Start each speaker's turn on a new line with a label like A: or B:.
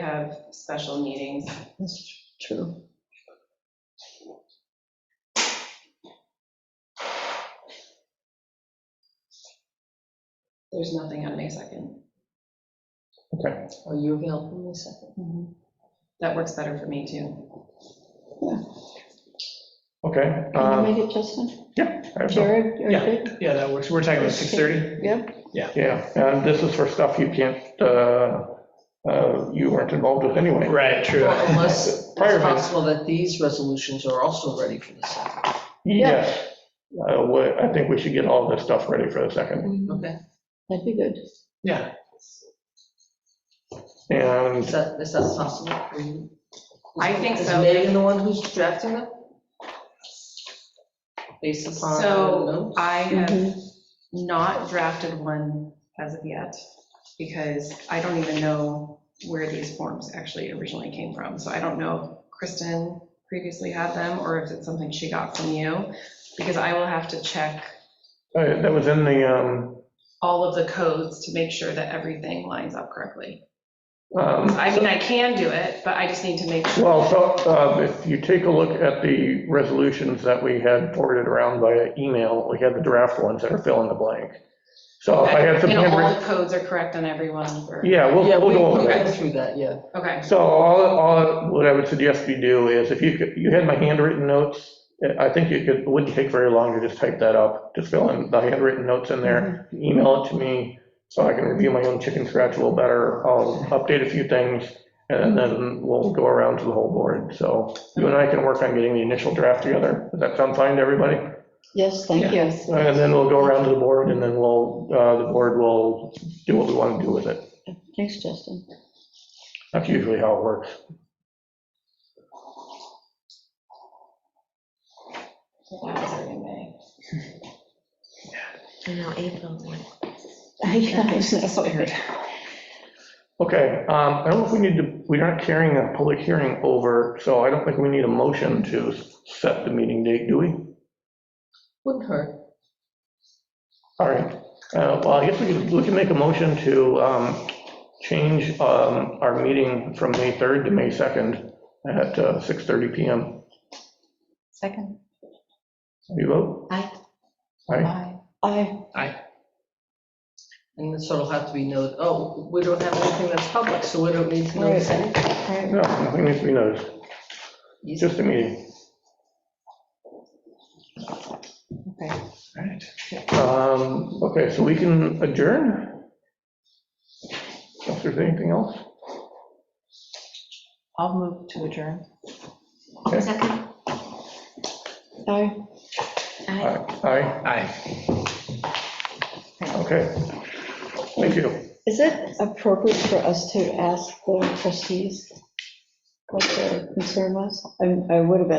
A: have special meetings.
B: That's true.
A: There's nothing on May 2nd.
C: Okay,
B: Are you available in a second?
A: Mm-hmm. That works better for me, too.
C: okay.
D: Can you
C: um,
D: make it, Justin?
C: I have no-
D: Jared, you're
E: Yeah.
D: good?
E: Yeah, that works. We're talking about 6:30?
D: Yep,
C: Yeah, and this is for stuff you can't, uh, uh, you weren't involved with anyway.
E: Right, true.
B: Well, Unless
C: Prior
B: it's
C: to-
B: possible that these resolutions are also ready for the second.
C: Yes, Uh, wha- I think we should get all this stuff ready for the second.
D: that'd
B: Okay,
D: be good.
E: Yeah,
B: is
C: And
B: that, is that possible? for you?
A: I think
B: Is
A: so.
B: Megan the one who's drafting them? Based upon.
A: So I have
D: Mhm.
A: not drafted one as of yet, because I don't even know where these forms actually originally came from. So I don't know if Kristen previously had them, or if it's something she got from you, because I will have to check
C: uh, that was in the, um,
A: all of the codes to make sure that everything lines up correctly.
C: um,
A: I mean, I can do it, but I just need to make sure.
C: well, so uh, if you take a look at the resolutions that we had forwarded around via email, we had the draft ones that are fill in the blank. So if Oh, I had some
A: You know, all
C: handwritten,
A: the codes are correct on everyone, or,
C: yeah, we'll,
B: Yeah,
C: we'll
B: we-
C: go over
B: we'll
C: that.
B: go through that, yeah.
A: okay.
C: So all, all, what I would suggest you do is, if you, could- you had my handwritten notes, I think you could, it wouldn't take very long to just type that up, just fill in the handwritten notes in there, email it to me, so I can review my own chicken scratch a little better, I'll update a few things, and then we'll go around to the whole board, so you and I can work on getting the initial draft together, does that sound fine to everybody?
D: Yes, thank you.
C: And then we'll go around to the board, and then we'll, uh, the board will do what we want to do with it,
D: Thanks, Justin.
C: that's usually how it works.
A: That's in May.
F: I know, April. one.
D: I guess.
F: That's weird.
C: Okay, um, I don't know if we need to, we're not carrying a public hearing over, so I don't think we need a motion to set the meeting date, do we?
B: Wouldn't hurt.
C: All right, Uh, well, I guess we could, we can make a motion to um, change um, our meeting from May 3rd to May 2nd at uh, 6:30 PM.
F: Second,
C: You vote?
F: Aye.
C: Aye,
F: aye.
D: I,
B: And so it'll have to be noted, oh, we don't have anything that's public, so we don't need to notice
D: Right.
B: anything.
C: no, nothing needs to be noticed, It's
B: Easy.
C: just a meeting.
F: Okay.
E: all right.
C: Um, Okay, so we can adjourn? If there's anything else?
F: I'll move to adjourn.
C: Okay.
F: Second,
D: I.
F: aye.
C: Aye. Aye.
E: Aye.
C: Okay. Thank you.
D: Is it appropriate for us to ask the trustees what their concern was? I I would have